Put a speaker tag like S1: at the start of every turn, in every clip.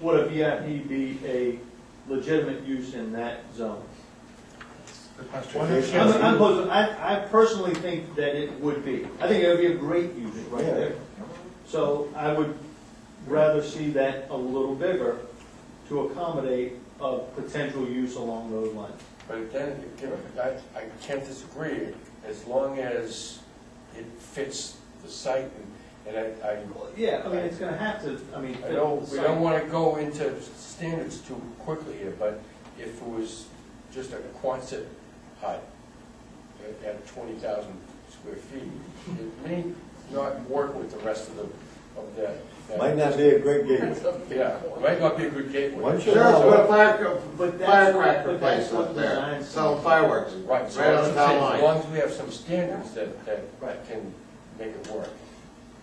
S1: would a VIP be a legitimate use in that zone?
S2: Good question.
S3: Why don't you-
S1: I'm, I'm posing- I, I personally think that it would be. I think it would be a great use right
S3: Yeah.
S1: there. So I would rather see that a little bigger to accommodate a potential use along those lines.
S4: But again, you know, I, I can't disagree, as long as it fits the site, and, and I, I,
S1: Well, Yeah, I mean, it's gonna have to, I mean.
S4: I know, we don't
S1: want.
S4: wanna go into standards too quickly here, but if it was just a Quonset hut at- at twenty thousand square feet, it may not work with the rest of the, of that. that-
S3: Might not be a great gig.
S4: Yeah, it might not be a good gateway.
S3: Why don't you-
S4: So-
S5: Sheriff, put
S1: But
S5: a fire,
S1: that's
S5: firecracker
S1: what- but that's
S5: place up
S1: what
S5: there,
S1: design-
S5: selling fireworks, right
S4: Right,
S5: on
S4: so that's what I'm
S5: the
S4: saying,
S5: town
S4: as
S5: line.
S4: long as we have some standards that,
S1: Right.
S4: that can make it work.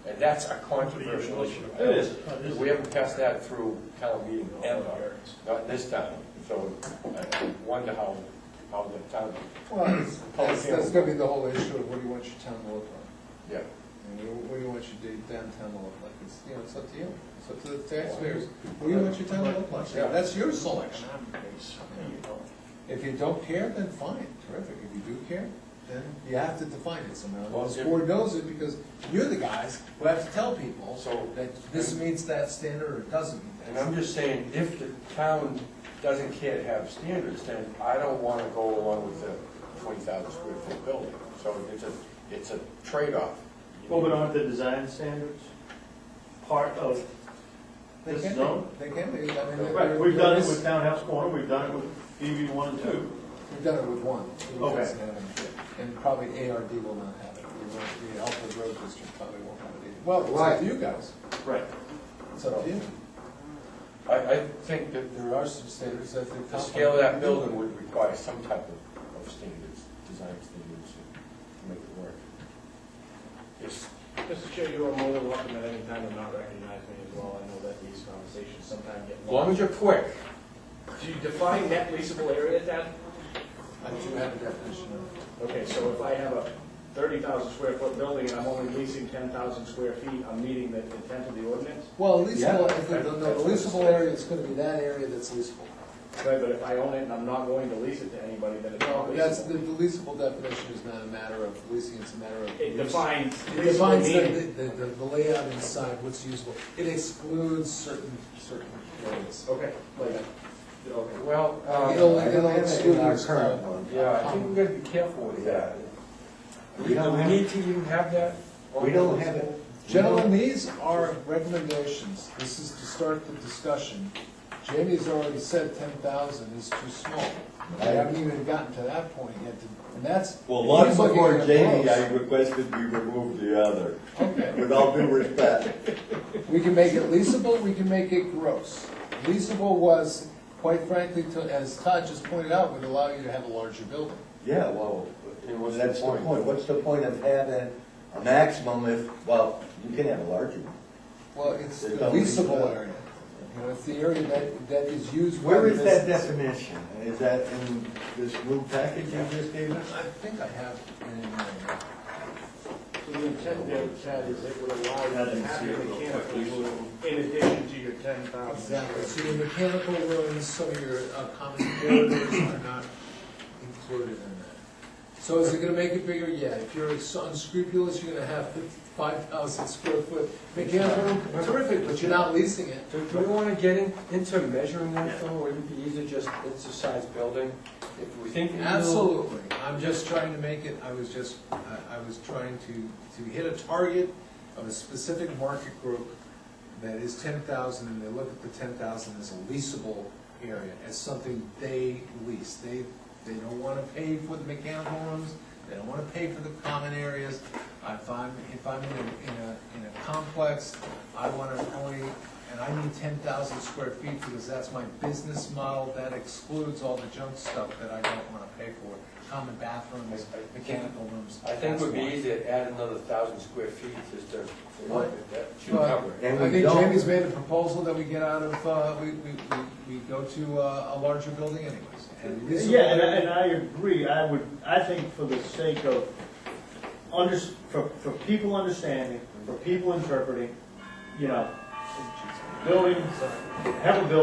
S4: And that's a controversial issue.
S1: It is.
S4: We haven't passed that through town meeting ever, not this time, so I wonder how, how the town,
S6: Well, it's- that's, that's gonna be the whole issue of what do you want your town to look like?
S4: yeah.
S6: And what- what do you want your downtown to look like? It's, you know, it's up to you. It's up to the taxpayers. What do you want your town to look like?
S4: Yeah.
S6: That's your selection. If you don't care, then fine, terrific. If you do care, then you have to define it somehow.
S4: Well,
S6: This
S4: if-
S6: board knows it because you're the guys who have to tell people
S4: So-
S6: that this meets that standard or it doesn't meet
S4: And
S6: that.
S4: I'm just saying, if the town doesn't care to have standards, then I don't wanna go along with the twenty thousand square foot building. So it's a, it's a trade-off.
S1: Well, but aren't the design standards part of
S6: They
S1: this
S6: can't be-
S1: zone?
S6: They can be. I mean, they're-
S1: Right, we've done it
S6: they're-
S1: with Townhouse Corner, we've done it with DB one and two.
S6: We've done it with one. who
S1: Okay.
S6: doesn't have it. And probably ARD will not have it. We won't- The Alfred Road District probably won't have it either. Well, it's up
S5: Right.
S6: to you guys.
S1: Right.
S6: It's up to you.
S4: I, I think that
S6: There are some standards that they've.
S4: The scale of that building would require some type of, of standards, design standards to make it work. Yes,
S7: Mr. Chair, you are more than welcome at any time to not recognize me as well. I know that these conversations sometimes get
S4: as long
S7: long.
S4: as you're quick.
S7: Do you define net leasable area as that?
S6: I do have a definition of it.
S7: Okay, so if I have a thirty thousand square foot building and I'm only leasing ten thousand square feet, I'm meeting the intent of the ordinance?
S6: Well, leasable, if the,
S7: Yeah.
S6: no, the leasable area is gonna be that area that's leasable.
S7: Right, but if I own it and I'm not going to lease it to anybody, then it's not
S6: That's, the
S7: leasable.
S6: the leasable definition is not a matter of leasing, it's a matter of.
S7: It
S6: use.
S7: defines
S6: It
S7: leasable
S6: defines
S7: meaning.
S6: the, the, the- the layout inside, what's usable. It excludes certain, certain areas.
S7: Okay, like, okay.
S4: Well,
S6: It'll,
S4: uh,
S6: it'll exclude.
S3: our
S6: certain-
S3: current one.
S4: yeah, I think we gotta be careful with that. Do we
S3: We don't have-
S4: need to even have that?
S3: We don't have it.
S6: Gentlemen, these are recommendations. This is to start the discussion. Jamie's already said ten thousand is too small. I haven't even gotten to that point yet, to- and that's.
S3: Well, once
S6: he's looking
S3: before
S6: at
S3: Jamie,
S6: gross.
S3: I requested we remove the other,
S6: Okay,
S3: with all due respect.
S6: we can make it leasable, we can make it gross. Leasable was, quite frankly, to- as Todd just pointed out, would allow you to have a larger building.
S3: Yeah, well,
S4: And what's the
S3: that's the
S4: point?
S3: point. What's the point of having a maximum if, well, you can have a larger one.
S6: Well, it's
S3: It
S6: the
S3: doesn't-
S6: leasable area. You know, it's the area that, that is used. by
S3: Where
S6: the
S3: is that
S6: business.
S3: definition? Is that in this new package you just gave us?
S6: I think I have it in there.
S7: So the intent there, Chad, is it would allow you
S1: That
S7: to
S1: didn't
S7: have
S1: see
S7: your
S1: it real
S7: mechanical
S1: quick.
S7: room in addition to your ten thousand.
S6: Exactly, so your mechanical rooms, some of your uh, common corridors are not included in that. So is it gonna make it bigger? Yeah, if you're so unscrupulous, you're gonna have five thousand square foot mechanical room, terrific, but you're not leasing it.
S4: Do, do we wanna get in, into measuring that though? Wouldn't it be easier just, it's a size building? If we think.
S6: Absolutely, I'm just trying to make it, I was just, I, I was trying to, to hit a target of a specific market group that is ten thousand, and they look at the ten thousand as a leasable area, as something they lease, they, they don't wanna pay for the mechanical rooms, they don't wanna pay for the common areas. If I'm, if I'm in a, in a, in a complex, I wanna only, and I need ten thousand square feet because that's my business model, that excludes all the junk stuff that I don't wanna pay for, common bathrooms, mechanical rooms.
S4: I think it would be
S6: that's why.
S4: easier to add another thousand square feet just to,
S6: What?
S4: that should cover it.
S3: And
S6: I
S3: we
S6: think
S3: don't-
S6: Jamie's made a proposal that we get out of, uh, we, we, we we go to uh, a larger building anyways. And this is-
S1: Yeah, and I, and I agree, I would, I think for the sake of, under, for, for people understanding, for people interpreting, you know, building, have a building